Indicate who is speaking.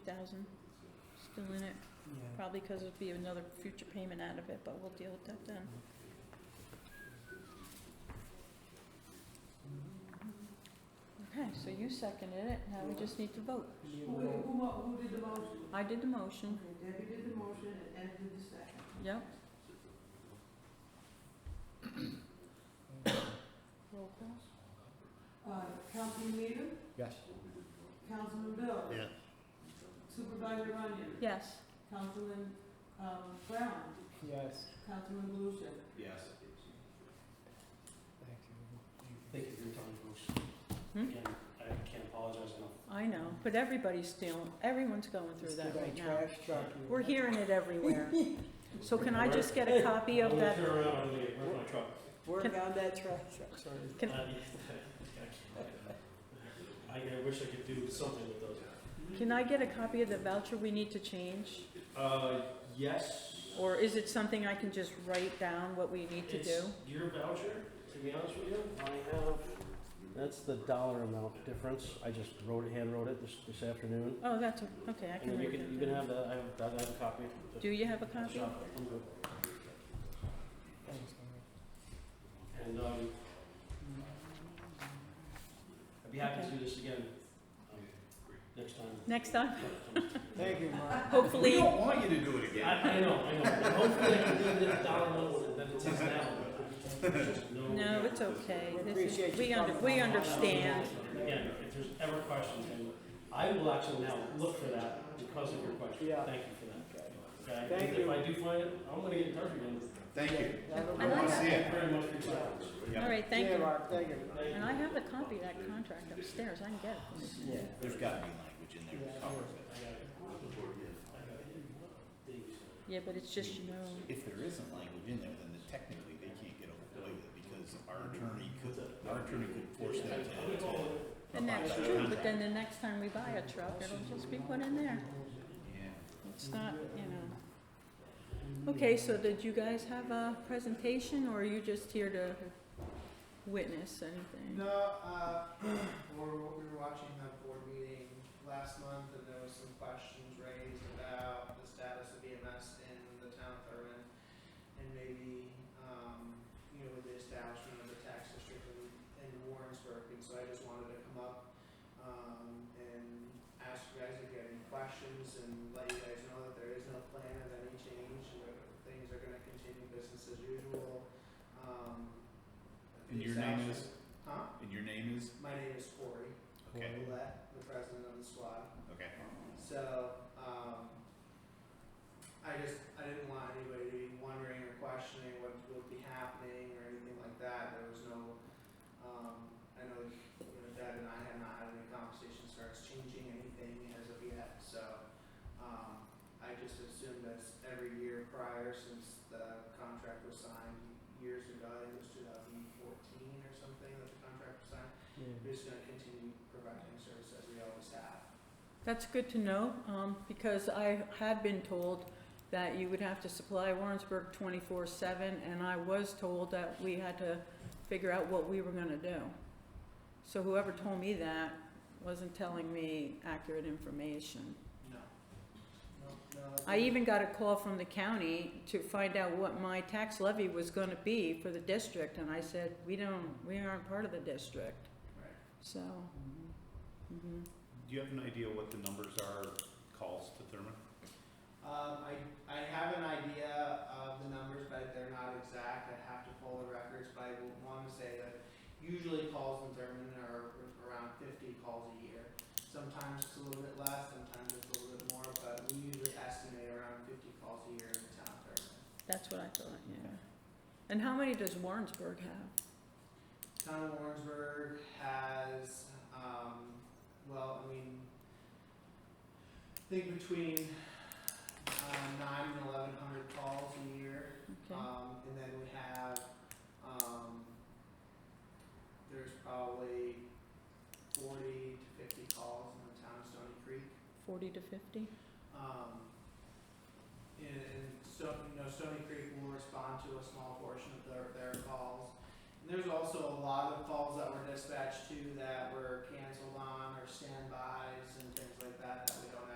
Speaker 1: thousand still in it,
Speaker 2: Yeah.
Speaker 1: probably because it'd be another future payment out of it, but we'll deal with that then. Okay, so you seconded it, now we just need to vote.
Speaker 2: Who,
Speaker 3: Who, who, mo- who did the motion?
Speaker 1: I did the motion,
Speaker 3: Okay, Debbie did the motion and Ed did the second.
Speaker 1: yep. Roll call?
Speaker 3: Uh, Councilman Needham,
Speaker 2: Yes.
Speaker 3: Councilman Bill.
Speaker 4: Yeah.
Speaker 3: Supervisor Runyon,
Speaker 1: Yes.
Speaker 3: Councilman, um, Brown,
Speaker 2: Yes.
Speaker 3: Councilman Lucia.
Speaker 4: Yes.
Speaker 2: Thank you.
Speaker 5: Thank you for your time, folks.
Speaker 1: Hmm?
Speaker 5: Again, I can't apologize enough.
Speaker 1: I know, but everybody's stealing, everyone's going through
Speaker 2: It's
Speaker 1: that
Speaker 2: like
Speaker 1: right now.
Speaker 2: trash truck.
Speaker 1: We're hearing it everywhere. So can I just get a copy of that?
Speaker 5: I'm gonna turn around and leave. Where's my truck?
Speaker 2: Work
Speaker 1: Can-
Speaker 2: on that trash truck, sorry.
Speaker 1: Can-
Speaker 5: Uh, yeah, I can't. I- I wish I could do something with those.
Speaker 1: Can I get a copy of the voucher we need to change?
Speaker 5: Uh, yes.
Speaker 1: Or is it something I can just write down what we need to do?
Speaker 5: It's your voucher, to be honest with you. I have, that's the dollar amount difference. I just wrote, hand wrote it this, this afternoon.
Speaker 1: Oh, that's, a- okay, I
Speaker 5: And
Speaker 1: can
Speaker 5: then you
Speaker 1: write
Speaker 5: can, you
Speaker 1: that
Speaker 5: can
Speaker 1: down.
Speaker 5: have that, I have, I have a copy.
Speaker 1: Do you have a copy?
Speaker 5: Shop, I'm good.
Speaker 2: Thanks,
Speaker 5: And, um, I'd be happy to do this again, um, next time.
Speaker 1: Next time?
Speaker 2: Thank you, Mark.
Speaker 4: We
Speaker 1: Hopefully,
Speaker 4: don't want you to do it
Speaker 5: I,
Speaker 4: again.
Speaker 5: I know, I know, And hopefully I can do this dollar lower than it is now. Just
Speaker 1: no, it's okay.
Speaker 2: We
Speaker 1: This is-
Speaker 2: appreciate you
Speaker 1: We under,
Speaker 2: coming
Speaker 1: we
Speaker 2: on.
Speaker 1: understand.
Speaker 5: Again, if there's ever questions, and I will actually now look for that because of your question.
Speaker 2: Yeah.
Speaker 5: Thank you for that. Okay?
Speaker 2: Thank
Speaker 5: If
Speaker 2: you.
Speaker 5: I do find it, I'm gonna get in touch again.
Speaker 4: Thank you.
Speaker 2: Have a
Speaker 1: I
Speaker 4: I
Speaker 2: good
Speaker 1: like
Speaker 4: want
Speaker 2: one.
Speaker 4: to see
Speaker 5: Thank you
Speaker 4: it.
Speaker 5: very much for your time.
Speaker 1: All right, thank
Speaker 2: Yeah,
Speaker 1: you.
Speaker 2: Mark, thank you.
Speaker 5: Thank
Speaker 1: And I have a copy of that contract upstairs, I can get it. from you.
Speaker 2: Yeah.
Speaker 4: There's gotta be language in there. to cover it.
Speaker 1: Yeah, but it's just, you know,
Speaker 4: If there isn't language in there, then the- technically they can't get away with it because our attorney could, our attorney could force them to. to-
Speaker 1: and that's true, but then the next time we buy a truck, it'll just be put in there.
Speaker 4: Yeah.
Speaker 1: It's not, you know. Okay, so did you guys have a presentation, or are you just here to witness anything?
Speaker 6: No, uh, we're, we were watching that board meeting last month, and there was some questions raised about the status of EMS in the town of Thurman, and maybe, um, you know, with the establishment of the tax district in, in Warrensburg, and so I just wanted to come up, um, and ask you guys if you have any questions, and let you guys know that there is no plan of any change, and that things are gonna continue business as usual, um. the
Speaker 4: And your name is,
Speaker 6: establishment- Huh?
Speaker 4: and your name is?
Speaker 6: My name is Corey
Speaker 4: Okay,
Speaker 6: Willett, the president of the squad.
Speaker 4: okay.
Speaker 6: So, um, I just, I didn't want anybody to be wondering or questioning what would be happening or anything like that. There was no, um, I know, you know, Deb and I had not had any conversations as far as changing anything as of yet, so, um, I just assumed that every year prior since the contract was signed years ago, I think it was two thousand fourteen or something that the contract was signed, we're just gonna continue providing service as we always have.
Speaker 1: That's good to know, um, because I had been told that you would have to supply Warrensburg twenty-four seven, and I was told that we had to figure out what we were gonna do. So whoever told me that wasn't telling me accurate information.
Speaker 6: No. No, no. that's
Speaker 1: I
Speaker 6: not-
Speaker 1: even got a call from the county to find out what my tax levy was gonna be for the district, and I said, we don't, we aren't part of the district,
Speaker 6: Right.
Speaker 1: so, mhm.
Speaker 4: Do you have an idea what the numbers are, calls to Thurman?
Speaker 6: Um, I, I have an idea of the numbers, but they're not exact, I have to pull the records, but I would wanna say that usually calls in Thurman are around fifty calls a year. Sometimes it's a little bit less, sometimes it's a little bit more, but we usually estimate around fifty calls a year in the town of Thurman.
Speaker 1: that's what I thought, yeah. And how many does Warrensburg have?
Speaker 6: Town of Warrensburg has, um, well, I mean, I think between, uh, nine and eleven hundred calls a year.
Speaker 1: Okay,
Speaker 6: Um, and then we have, um, there's probably forty to fifty calls in the town of Stony Creek.
Speaker 1: forty to fifty?
Speaker 6: Um, and, and Stony, you know, Stony Creek will respond to a small portion of their, their calls. And there's also a lot of calls that were dispatched to that were canceled on or standbys and things like that, that we don't